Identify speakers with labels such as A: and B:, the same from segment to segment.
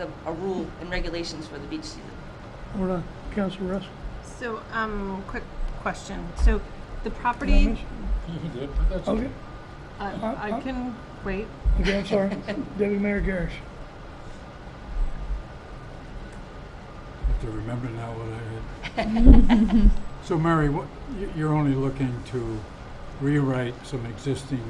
A: the- a rule and regulations for the beach season.
B: Hold on, Council Russ.
C: So, um, quick question. So, the
B: did I
C: property,
B: miss-
D: You did, but that's
B: Okay,
C: uh, I can wait.
B: okay, I'm sorry. Deputy Mayor Garrish.
D: have to remember now what I had. So Mary, what, you- you're only looking to rewrite some existing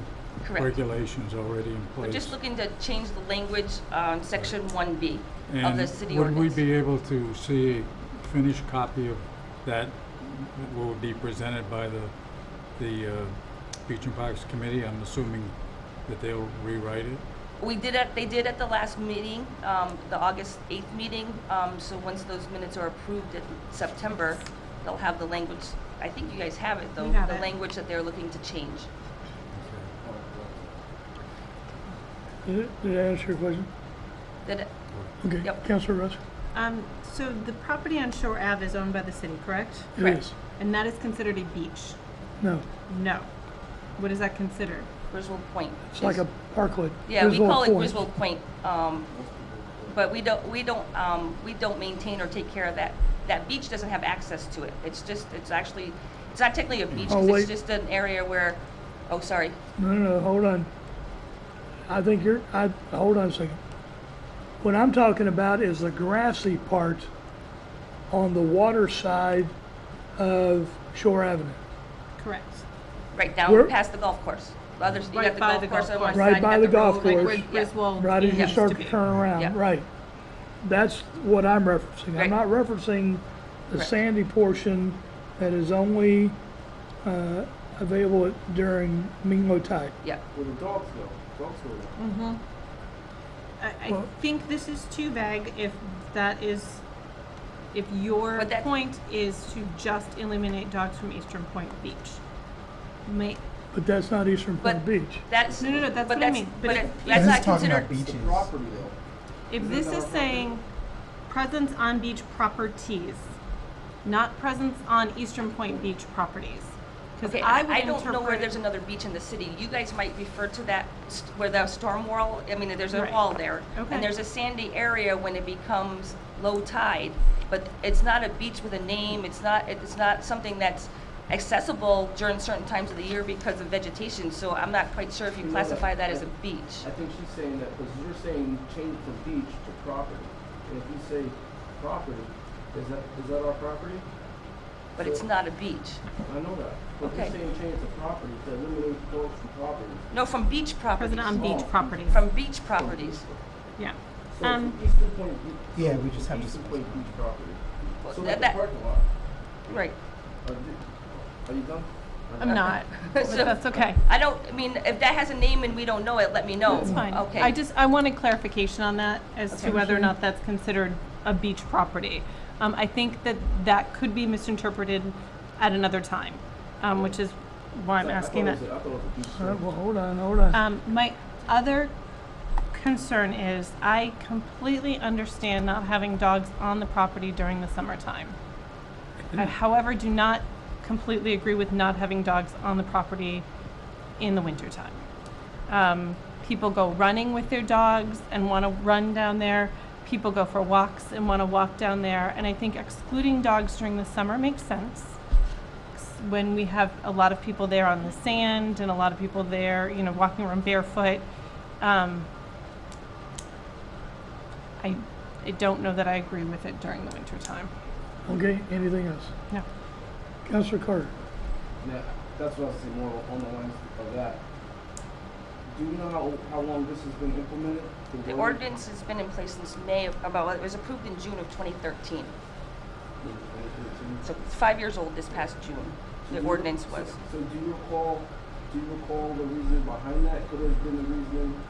A: Correct.
D: regulations already in place?
A: We're just looking to change the language on section 1B of the city
D: And would
A: ordinance.
D: we be able to see a finished copy of that that will be presented by the, the uh, Beach and Parks Committee? I'm assuming that they'll rewrite it?
A: We did at, they did at the last meeting, um, the August 8th meeting, um, so once those minutes are approved in September, they'll have the language, I think you guys have it though,
C: We have
A: the
C: it.
A: language that they're looking to change.
B: Did it- did I answer your question?
A: Did,
B: Okay,
A: Yep.
B: Council Russ.
C: Um, so the property on Shore Ave is owned by the city, correct?
B: It
A: Correct.
B: is.
C: And that is considered a beach?
B: No,
C: No. What is that considered?
A: Griswold Point.
B: it's like a parklet.
A: Yeah, we
B: Griswold
A: call it
B: Point.
A: Griswold Point, um, but we don't, we don't, um, we don't maintain or take care of that. That beach doesn't have access to it. It's just, it's actually, it's not technically a beach,
B: Oh,
A: 'cause
B: wait.
A: it's just an area where, oh, sorry.
B: No, no, no, hold on. I think you're, I, hold on a second. What I'm talking about is the grassy part on the water side of Shore Avenue.
C: Correct.
A: Right
B: Where-
A: down past the golf course. The others, you
C: Right
A: got the
C: by
A: golf
C: the
A: course
C: golf
A: on one
C: course.
B: Right
A: side, you
B: by
A: got
B: the
A: the
B: golf
A: road.
C: Like
B: course.
C: where
A: Yeah.
C: Griswold.
B: Right as you
C: used
B: start
C: to
B: to
C: be.
B: turn
A: Yeah.
B: around, right. That's what I'm referencing. I'm
A: Right.
B: not referencing the
A: Correct.
B: sandy portion that is only uh, available during Minglo tide.
A: Yeah,
E: Well, the dogs though, dogs were around.
C: I, I
B: Well-
C: think this is too vague if that is, if your
A: But that-
C: point is to just eliminate dogs from Eastern Point Beach. May,
B: But that's not Eastern Point
A: But-
B: Beach.
A: that's.
C: No, no, no, that's
A: but
C: what I mean. But
A: But
C: it-
A: it- that's not considered,
E: It's the property though.
C: If
E: Isn't
C: this
E: that
C: is
E: our property?
C: saying presence on beach properties, not presence on Eastern Point Beach properties, because
A: okay,
C: I would
A: I don't know where
C: interpret-
A: there's another beach in the city. You guys might refer to that, st- where the storm wall, I mean, there's a
C: Right.
A: wall there.
C: Okay.
A: And there's a sandy area when it becomes low tide, but it's not a beach with a name. It's not, it's not something that's accessible during certain times of the year because of vegetation. So I'm not quite sure if you
E: You know that-
A: classify that as a beach.
E: I think she's saying that, because you're saying change from beach to property. And if you say property, is that, is that our property?
A: But it's not a beach.
E: I know that. But you're
A: Okay.
E: saying change to property, to eliminate dogs from property.
A: No, from beach properties.
C: Present on beach
E: Oh.
C: properties,
A: From beach properties.
C: yeah.
E: So
C: Um,
E: it's Eastern Point Beach.
F: Yeah, we just have to
E: Eastern
F: specify.
E: Point Beach property.
A: Well,
E: So
A: that-
E: like the
A: that-
E: parking lot.
A: Right.
E: Are you- Are you done?
C: I'm not, but
A: So-
C: that's okay.
A: I don't, I mean, if that has a name and we don't know it, let me know.
C: That's fine.
A: Mm, Okay.
C: I just, I wanted clarification on that as to
A: Okay.
C: whether or not that's considered a beach property. Um, I think that that could be misinterpreted at another time, um, which is why I'm
E: I- I
C: asking
E: thought
C: that.
E: it was a- I thought it was a beach.
B: All right,
E: thing.
B: well, hold on, hold on.
C: Um, my other concern is I completely understand not having dogs on the property during the summertime. I, however, do not completely agree with not having dogs on the property in the wintertime. Um, people go running with their dogs and want to run down there. People go for walks and want to walk down there. And I think excluding dogs during the summer makes sense when we have a lot of people there on the sand and a lot of people there, you know, walking around barefoot. Um, I, I don't know that I agree with it during the winter time.
B: Okay, anything else?
C: No.
B: Councilor Carter,
E: And that, that's what I was saying more on the lines of that. Do you know how, how long this has been implemented?
A: The ordinance has been in place since May of, about, it was approved in June of 2013. So it's five years old this past June,
E: Mm-hmm.
A: the ordinance was.
E: So do you recall, do you recall the reason behind that? Could have been the reason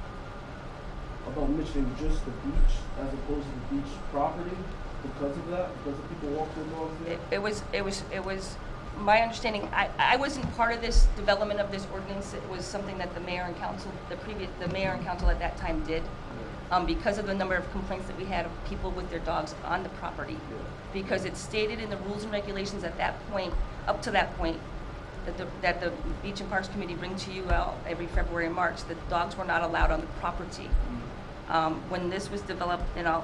E: about mentioning just the beach as opposed to the beach property because of that? Because the people walk their dogs there?
A: It it was, it was, it was, my understanding, I, I wasn't part of this development of this ordinance. It was something that the mayor and council, the previous, the mayor and council at that time did. um, because of the number of complaints that we had of people with their dogs on the property. Because it's stated in the rules and regulations at that point, up to that point, that the, that the Beach and Parks Committee bring to you out every February and March, that dogs were not allowed on the property. Um, When this was developed, and I'll,